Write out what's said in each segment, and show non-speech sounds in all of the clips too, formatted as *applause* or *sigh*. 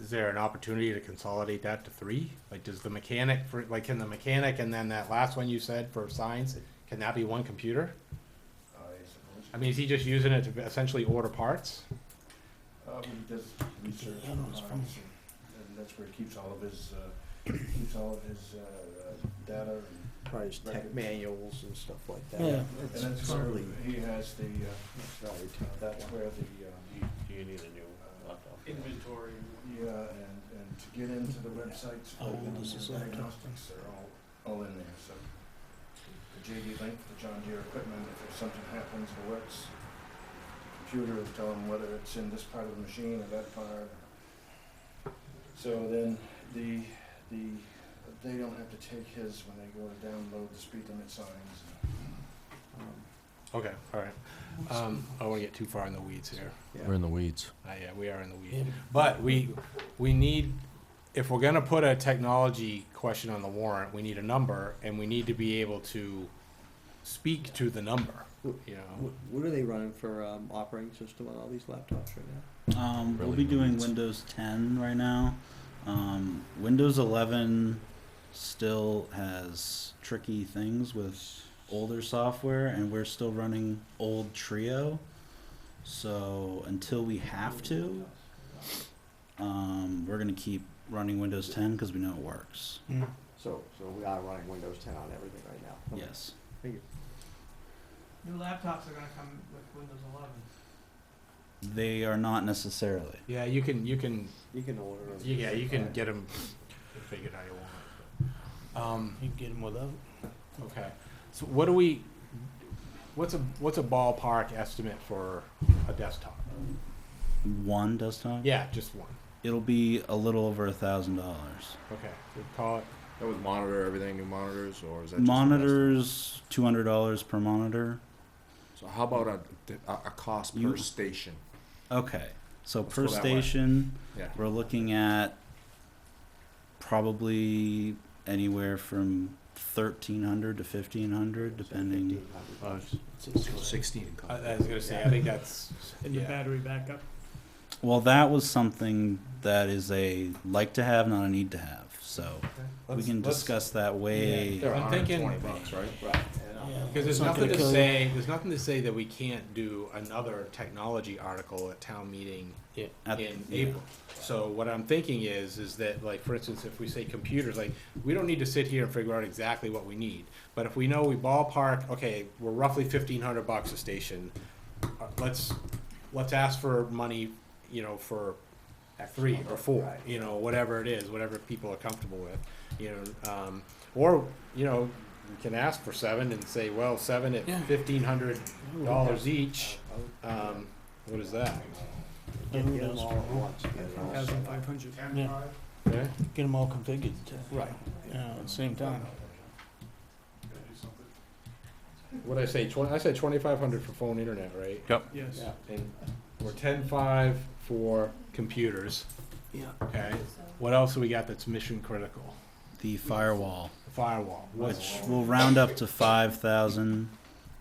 is there an opportunity to consolidate that to three? Like, does the mechanic for, like, can the mechanic and then that last one you said for signs, can that be one computer? I suppose. I mean, is he just using it to essentially order parts? Uh, but he does research on farms, and- and that's where he keeps all of his, uh, keeps all of his, uh, uh, data and probably just tech Record. manuals and stuff like that. Yeah. And It's that's where probably he has the, uh, right. that's where the, uh, Do you- do you need a new laptop? Inventory. um, yeah, and, and to get into the websites, How for old is this the laptop? diagnostics, they're all, all in there, so. The JD link, the John Deere equipment, if there's something happens or works, the computer will tell them whether it's in this part of the machine or that part. So then, the, the, they don't have to take his when they go to download the speed limit signs Okay, all right. Um, I don't want to get too far in the weeds here. We're in the weeds. Uh, yeah, we are in the weeds. But we, we need, if we're gonna put a technology question on the warrant, we need a number, and we need to be able to speak to the number, you know? What, what are they running for um, operating system on all these laptops right now? Um, we'll Really be doing needs- Windows 10 right now. Um, Windows 11 still has tricky things with older software, and we're still running old Trio. So until we have to, um, we're going to keep running Windows 10 because we know it works. So, so we are running Windows 10 on everything right now. Okay. Yes. New laptops are gonna come with Windows eleven. They are not necessarily. Yeah, you can, you can, You can order them. yeah, you can get them figured out you want. Um, You get them without? okay, so what do we, what's a, what's a ballpark estimate for a desktop? One desktop? Yeah, just one, It'll be a little over a thousand dollars. okay, so call it, That would monitor everything, new monitors, or is that just the Monitors, two hundred dollars per monitor. rest? So how about a, a, a cost per You- station? Okay, so Let's per go that way. station, Yeah. we're looking at probably anywhere from thirteen hundred to fifteen hundred, depending. Sixteen. I I was gonna say, I think that's, And the yeah. battery backup. Well, that was something that is a like to have, not a need to have. So we Let's- can let's- discuss that way. Yeah. I'm thinking- bucks, right? Because there's It's not nothing gonna to kill you. say, there's nothing to say that we can't do another technology article at town meeting in At- yeah. April. So what I'm thinking is, is that like, for instance, if we say computers, like, we don't need to sit here and figure out exactly what we need. But if we know we ballpark, okay, we're roughly fifteen hundred bucks a station, uh, let's, let's ask for money, you know, for three or four, you know, whatever it is, whatever people are comfortable with, you know, um, or, you know, you can ask for seven and say, well, seven at fifteen hundred dollars each, um, what is that? Oh, Get, get them all at once. get it all set up. hundred. Okay, Get them all configured. Right. Yeah, at the same time. what'd I say, twen- I said twenty-five hundred for phone internet, right? Yes. Yeah. And we're ten-five for computers, Yeah. okay? What else do we got that's mission critical? The firewall, Firewall, which what's, will round up to five thousand,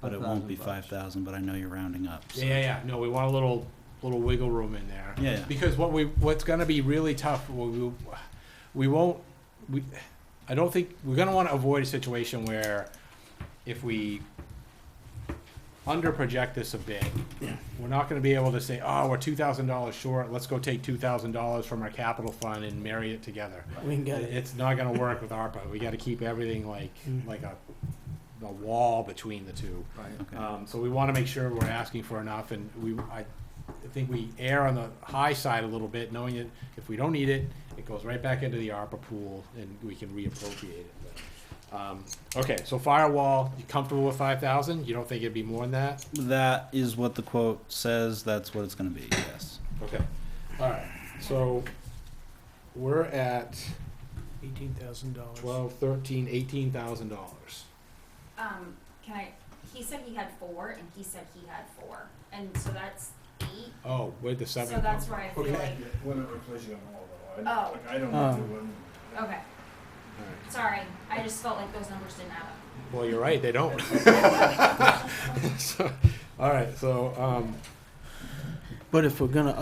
but it won't be 5,000 bucks. five thousand. But I know you're rounding up. So. yeah, yeah, yeah, no, we want a little, little wiggle room in there. Yeah, yeah. Because what we, what's gonna be really tough, we, we won't, we, I don't think, we're gonna wanna avoid a situation where if we underproject this a bit, we're not gonna be able to say, oh, we're two thousand dollars short, let's go take two thousand dollars from our capital fund and marry it together. We can get it. It's not gonna work with ARPA, we gotta keep everything like, Mm. like a, a wall between the two. Okay. Um, so we want to make sure we're asking for enough, and we, I think we err on the high side a little bit, knowing that if we don't need it, it goes right back into the ARPA pool, and we can reappropriate it. But, Um, okay, so firewall, you comfortable with five thousand? You don't think it'd be more than that? That is what the quote says. That's what it's going to be. Yes. Okay, all right, so we're at Eighteen thousand dollars. twelve, thirteen, eighteen thousand dollars. Um, can I, he said he had four and he said he had four, and so that's eight, Oh, where'd the seven so come that's from? where I feel Okay. like, Whatever plays you on all of them. I- Oh. like, I don't um, know. okay, All right. sorry, I just felt like those numbers didn't add up. Well, you're right, they *laughs* don't. *laughs* So, All right, so, um, But if we're gonna